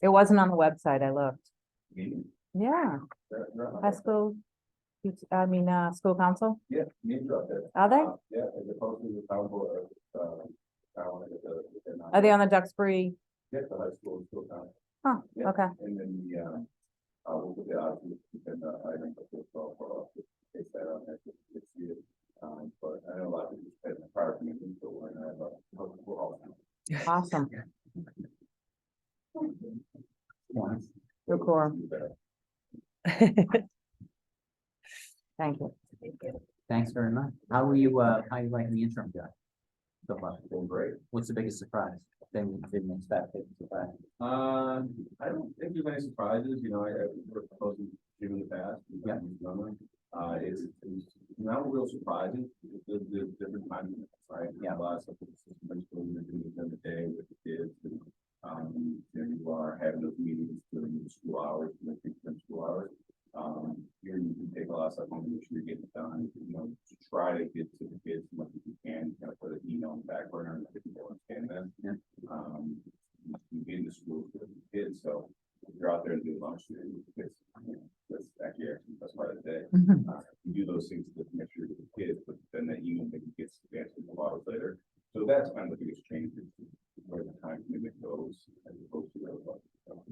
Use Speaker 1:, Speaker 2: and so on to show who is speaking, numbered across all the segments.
Speaker 1: It wasn't on the website, I looked.
Speaker 2: meeting.
Speaker 1: Yeah,
Speaker 2: They're- they're on
Speaker 1: high
Speaker 2: there.
Speaker 1: school, I mean, uh, school council,
Speaker 2: Yeah, meetings are up there.
Speaker 1: are they?
Speaker 2: Uh, Yeah, as opposed to the town board, uh, town, uh, if they're not-
Speaker 1: Are they on the Duxbury?
Speaker 2: Yeah, the high school, school town,
Speaker 1: Huh,
Speaker 2: Yeah.
Speaker 1: okay,
Speaker 2: and then the, uh, uh, we'll put the, odds and then the item of the twelve for us, it's that on that, it's you. Um, but I know a lot of people spend the prior meeting, so we're not, uh, we're all.
Speaker 1: awesome, Good call. thank you.
Speaker 3: Thanks very much. How are you, uh, how you liking the interim job? So far,
Speaker 2: Doing great.
Speaker 3: what's the biggest surprise? Then we didn't expect it to surprise.
Speaker 2: Um, I don't think there's any surprises, you know, I, I worked closely with Jim in the past. and
Speaker 3: Yeah.
Speaker 2: Jim Plummer. Uh, it's, it's not real surprising, there's, there's different times, right?
Speaker 3: Yeah.
Speaker 2: A lot of stuff that's just much more than doing the other day with the kids and, um, there you are having those meetings during the school hours, and the frequent school hours. Um, here you can take a lot of stuff home, make sure you get it done, you know, to try to get to the kids as much as you can, kind of put an email on the back burner and let people understand that.
Speaker 3: Yeah.
Speaker 2: Um, you get into school with the kids, so if you're out there and do lunch, you know, it's, you know, that's actually, that's part of the day. Uh, You do those things to make sure with the kids, but then that email maybe gets answered a lot later. So that's kind of the biggest change, is where the time limit goes, as opposed to the other one. So,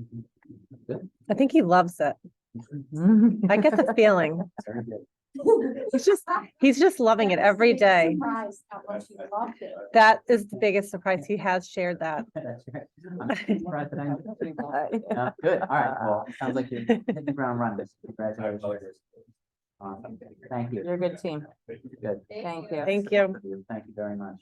Speaker 3: Good.
Speaker 4: I think he loves it.
Speaker 1: Mm-hmm.
Speaker 4: I get the feeling.
Speaker 3: Very good.
Speaker 4: He's just, he's just loving it every day.
Speaker 5: Surprised how much you loved it.
Speaker 4: That is the biggest surprise. He has shared that.
Speaker 3: That's right. I'm surprised that I know. Uh, Good, all right, well, sounds like you're hitting the ground running. Congratulations. Awesome. Thank you.
Speaker 1: You're a good team,
Speaker 2: thank you.
Speaker 3: Good.
Speaker 1: thank you.
Speaker 4: Thank you.
Speaker 3: Thank you very much.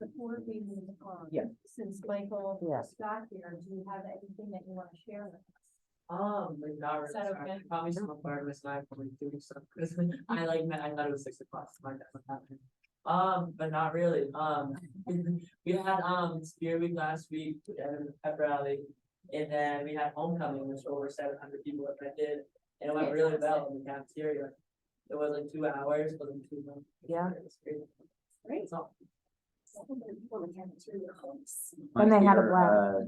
Speaker 5: Before we move on.
Speaker 3: Yeah.
Speaker 5: um, Since Michael
Speaker 1: Yes.
Speaker 5: is back here, do you have anything that you want to share with us?
Speaker 6: Um, like not really,
Speaker 5: Is that
Speaker 6: sorry,
Speaker 5: okay?
Speaker 6: probably some of our was not probably doing stuff, cause I like, met- I thought it was six o'clock, so my dad was happening. Um, but not really, um, we had, um, spear week last week, and pep rally. And then we had homecoming, which over seven hundred people attended, and it went really well in the cafeteria. It was like two hours, wasn't too long.
Speaker 1: Yeah.
Speaker 6: It was great.
Speaker 5: Great.
Speaker 6: It's all,
Speaker 5: Something that you want to have through your homes.
Speaker 3: My
Speaker 1: And they had a
Speaker 3: dear,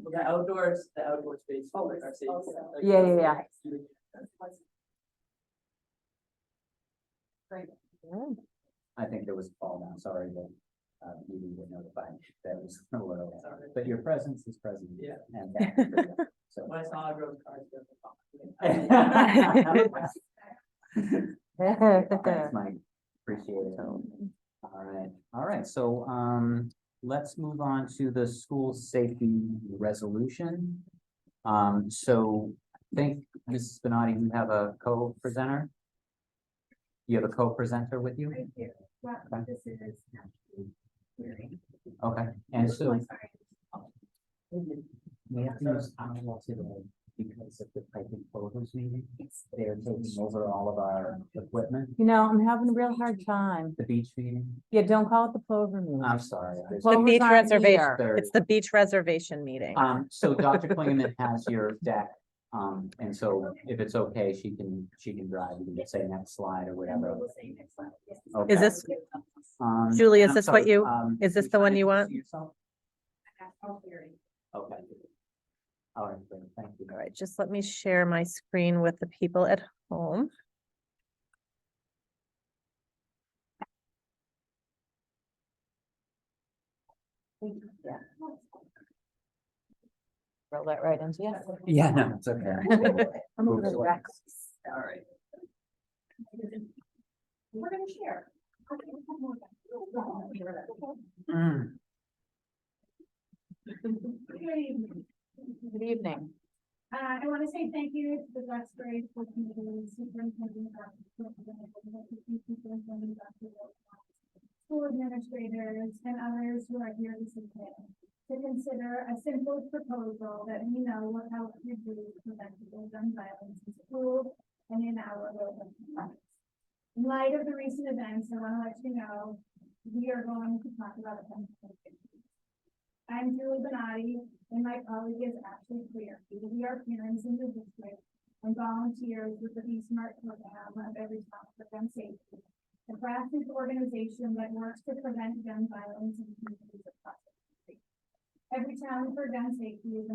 Speaker 1: blast.
Speaker 3: uh,
Speaker 6: the outdoors, the outdoor space.
Speaker 5: Oh,
Speaker 6: like our
Speaker 5: it's
Speaker 6: safety,
Speaker 5: also-
Speaker 6: like,
Speaker 1: Yeah, yeah, yeah.
Speaker 5: Great.
Speaker 3: I think there was a fall down, sorry that, uh, you didn't notify, that was a little,
Speaker 6: Sorry.
Speaker 3: but your presence is present.
Speaker 6: Yeah.
Speaker 3: And that- So.
Speaker 6: When I saw everyone's cars. I was like, "Oh."
Speaker 3: Thanks, Mike. Appreciate it. All right, all right, so um, let's move on to the school safety resolution. Um, so I think, Mrs. Spinati, you have a co-presenter? You have a co-presenter with you?
Speaker 5: Right here. Yeah,
Speaker 3: Okay.
Speaker 5: this is. actually very-
Speaker 3: Okay, and so.
Speaker 5: I'm sorry.
Speaker 3: We have to use Ottawa today because of the pipe and photos meeting.
Speaker 5: It's-
Speaker 3: They're taking over all of our equipment,
Speaker 1: You know, I'm having a real hard time,
Speaker 3: the beach meeting.
Speaker 1: yeah, don't call it the Plover Meeting.
Speaker 3: I'm sorry. I-
Speaker 4: The
Speaker 1: Plovers
Speaker 4: beach
Speaker 1: aren't
Speaker 4: reservation.
Speaker 1: here.
Speaker 3: Third.
Speaker 4: It's the beach reservation meeting.
Speaker 3: Um, so Dr. Klingerman has your deck, um, and so if it's okay, she can, she can drive, you can say next slide or
Speaker 5: And
Speaker 3: whatever.
Speaker 5: we'll say next slide, yes.
Speaker 3: Okay.
Speaker 4: Is this-
Speaker 3: Um,
Speaker 4: Julie, is
Speaker 3: I'm
Speaker 4: this what
Speaker 3: sorry,
Speaker 4: you-
Speaker 3: um,
Speaker 4: is this
Speaker 3: you
Speaker 4: the one
Speaker 3: trying to
Speaker 4: you want?
Speaker 3: see yourself?
Speaker 5: Oh, very.
Speaker 3: Okay. All right, great, thank you.
Speaker 4: All right, just let me share my screen with the people at home.
Speaker 1: Roll that right into you.
Speaker 3: Yeah, no, it's okay.
Speaker 1: I'm a little
Speaker 3: Oops.
Speaker 1: wreck.
Speaker 5: All right. We're gonna share.
Speaker 3: Mm,
Speaker 1: Good evening.
Speaker 5: Uh, I want to say thank you to the Duxbury School Committee, Superintendent, Dr. Copeland, Superintendent, Dr. Wilcox, School administrators and others who are here this evening to consider a simple proposal that we know will help reduce preventable gun violence in school and in our local communities. In light of the recent events, I want to let you know, we are going to talk about a gun convention. I'm Julie Benatti, and my colleague is Ashley Clear. We are parents in the district and volunteers with the Be Smart program of every child for gun safety. A grassroots organization that works to prevent gun violence in communities across the country. every town for gun safety is a